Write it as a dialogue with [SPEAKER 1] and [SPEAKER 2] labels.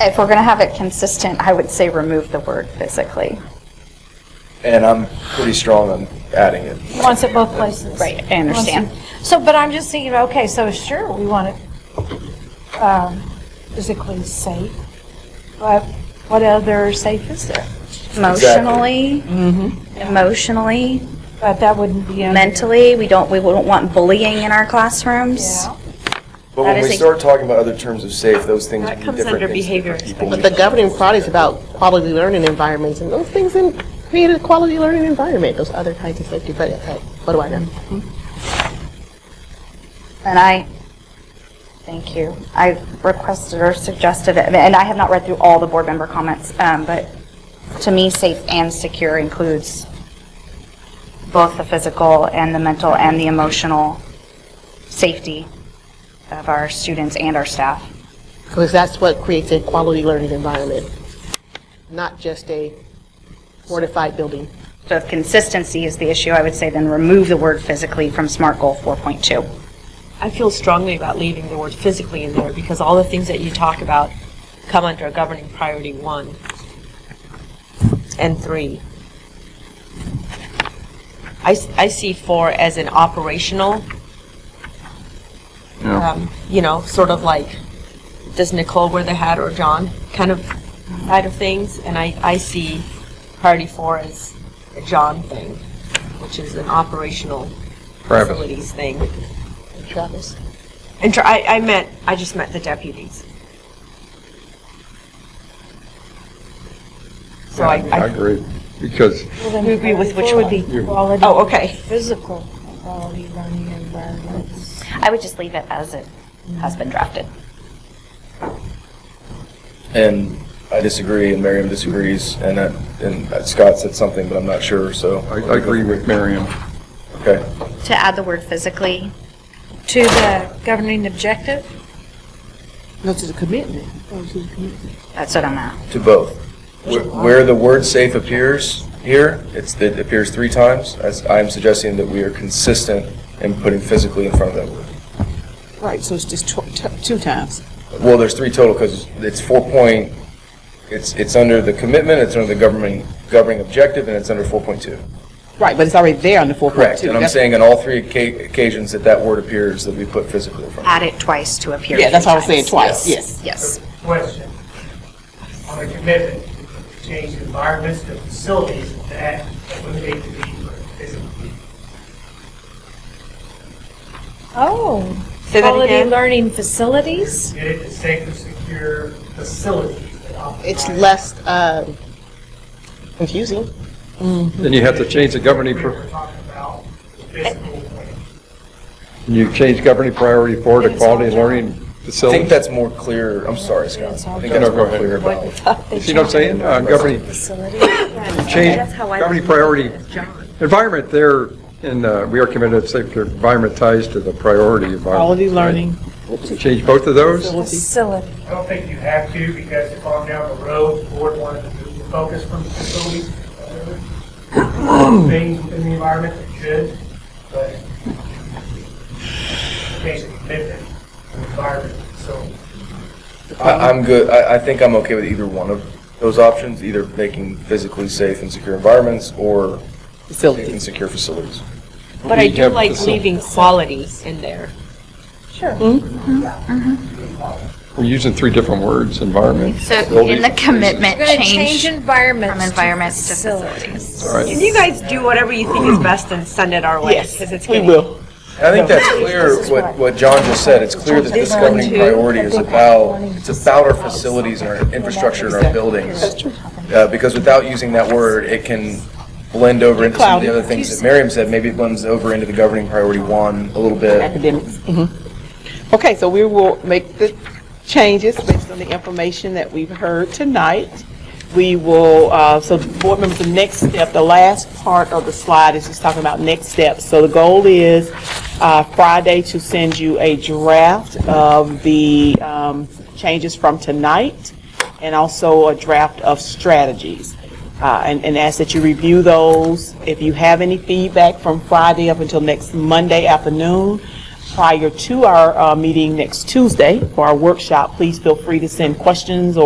[SPEAKER 1] if we're going to have it consistent, I would say remove the word physically.
[SPEAKER 2] And I'm pretty strong on adding it.
[SPEAKER 3] He wants it both places.
[SPEAKER 1] Right, I understand.
[SPEAKER 3] Wants it- So, but I'm just thinking, okay, so sure, we want it um, physically safe, but what other safe is there?
[SPEAKER 1] Emotionally, emotionally,
[SPEAKER 3] But that wouldn't be under.
[SPEAKER 1] mentally, we don't, we wouldn't want bullying in our classrooms.
[SPEAKER 3] Yeah.
[SPEAKER 2] But
[SPEAKER 1] That
[SPEAKER 2] when
[SPEAKER 1] is
[SPEAKER 2] we
[SPEAKER 1] a-
[SPEAKER 2] start talking about other terms of safe, those things
[SPEAKER 4] That
[SPEAKER 2] would be
[SPEAKER 4] comes
[SPEAKER 2] different
[SPEAKER 4] under
[SPEAKER 2] things for
[SPEAKER 4] behavior
[SPEAKER 2] people.
[SPEAKER 4] expectations.
[SPEAKER 5] But the governing body is about quality learning environments, and those things in, create a quality learning environment, those other kinds of safety, but uh, what do I know?
[SPEAKER 1] And I, thank you. I requested or suggested, it, and I have not read through all the board member comments, um, but to me, safe and secure includes both the physical and the mental and the emotional safety of our students and our staff.
[SPEAKER 5] Because that's what creates a quality learning environment, not just a fortified building.
[SPEAKER 1] So if consistency is the issue, I would say then remove the word physically from SMART Goal 4.2.
[SPEAKER 4] I feel strongly about leaving the word physically in there because all the things that you talk about come under governing priority one and three. I, s- I see four as an operational, um, you know, sort of like, does Nicole wear the hat or John kind of side of things? And I, I see priority four as a John thing, which is an operational
[SPEAKER 6] Private.
[SPEAKER 4] facilities thing.
[SPEAKER 5] Travis?
[SPEAKER 4] And tr- I, I meant, I just meant the deputies. So I,
[SPEAKER 6] I
[SPEAKER 4] I
[SPEAKER 6] agree, because
[SPEAKER 4] we agree with which
[SPEAKER 3] Would
[SPEAKER 4] one?
[SPEAKER 3] be quality.
[SPEAKER 4] Oh, okay.
[SPEAKER 3] Physical quality learning environments.
[SPEAKER 1] I would just leave it as it has been drafted.
[SPEAKER 2] And I disagree, and Miriam disagrees, and that, and Scott said something, but I'm not sure, so.
[SPEAKER 6] I I agree with Miriam.
[SPEAKER 2] Okay.
[SPEAKER 1] To add the word physically,
[SPEAKER 3] To the governing objective?
[SPEAKER 5] No, to the commitment.
[SPEAKER 1] that's what I'm at.
[SPEAKER 2] To both. Where- Where the word "safe" appears here, it's, it appears three times, as I'm suggesting that we are consistent in putting physically in front of that word.
[SPEAKER 7] Right, so it's just tw- t- two times.
[SPEAKER 2] Well, there's three total, because it's four point, it's, it's under the commitment, it's under the governing, governing objective, and it's under 4.2.
[SPEAKER 7] Right, but it's already there on the 4.2.
[SPEAKER 2] Correct, and I'm
[SPEAKER 7] That's-
[SPEAKER 2] saying on all three occa- occasions that that word appears, that we put physically in front of it.
[SPEAKER 1] Add it twice to appear.
[SPEAKER 7] Yeah, that's
[SPEAKER 1] three
[SPEAKER 7] what I was saying,
[SPEAKER 1] times.
[SPEAKER 7] twice, yes.
[SPEAKER 1] Yes.
[SPEAKER 8] question on the commitment to change environments to facilities to act, eliminate the need for physical.
[SPEAKER 3] Oh.
[SPEAKER 4] Say that
[SPEAKER 3] Quality
[SPEAKER 4] again.
[SPEAKER 3] learning facilities?
[SPEAKER 8] Get it to safe and secure facilities that occupy.
[SPEAKER 5] It's less um, confusing.
[SPEAKER 6] Then you have to change the governing,
[SPEAKER 8] We
[SPEAKER 6] pr-
[SPEAKER 8] were talking about the physical point.
[SPEAKER 6] you change governing priority four to quality learning
[SPEAKER 2] I think
[SPEAKER 6] facility.
[SPEAKER 2] that's more clear, I'm sorry, Scott, I think
[SPEAKER 6] No,
[SPEAKER 2] that's
[SPEAKER 6] go
[SPEAKER 2] more
[SPEAKER 6] ahead.
[SPEAKER 2] clear about it.
[SPEAKER 6] You See what I'm saying? Uh, Governing, change, governing priority, environment there, and uh, we are committed to safe environment ties to the priority environment.
[SPEAKER 7] Quality
[SPEAKER 6] right?
[SPEAKER 7] learning.
[SPEAKER 6] Change both of those?
[SPEAKER 3] Facility.
[SPEAKER 8] I don't think you have to, because if on down the road, the board wanted to move the focus from facilities to other things within the environment, it should, but change the commitment to environment, so.
[SPEAKER 2] I, I'm good, I, I think I'm okay with either one of those options, either making physically safe and secure environments, or safe and
[SPEAKER 5] Facilities.
[SPEAKER 2] secure facilities.
[SPEAKER 4] But I
[SPEAKER 6] We
[SPEAKER 4] do
[SPEAKER 6] have
[SPEAKER 4] like
[SPEAKER 6] facil-
[SPEAKER 4] leaving quality in there.
[SPEAKER 6] We're using three different words, environment.
[SPEAKER 1] So in
[SPEAKER 6] building,
[SPEAKER 1] the
[SPEAKER 6] places.
[SPEAKER 1] commitment
[SPEAKER 3] We're gonna change
[SPEAKER 1] change
[SPEAKER 3] environments.
[SPEAKER 1] from environments to facilities.
[SPEAKER 6] All right.
[SPEAKER 4] Can you guys do whatever you think is best and send it our way? Because it's
[SPEAKER 5] We
[SPEAKER 4] getting.
[SPEAKER 5] will.
[SPEAKER 2] I think that's clear, what, what John just said, it's clear that this governing priority is about, it's about our facilities and our infrastructure and our buildings. Uh, Because without using that word, it can blend over into some of the other things that Miriam said, maybe it blends over into the governing priority one a little bit.
[SPEAKER 7] Academics. Mhm. Okay, so we will make the changes based on the information that we've heard tonight. We will, uh, so board members, the next step, the last part of the slide is just talking about next steps. So the goal is uh, Friday to send you a draft of the um, changes from tonight and also a draft of strategies. Uh, and, and ask that you review those. If you have any feedback from Friday up until next Monday afternoon, prior to our uh, meeting next Tuesday for our workshop, please feel free to send questions or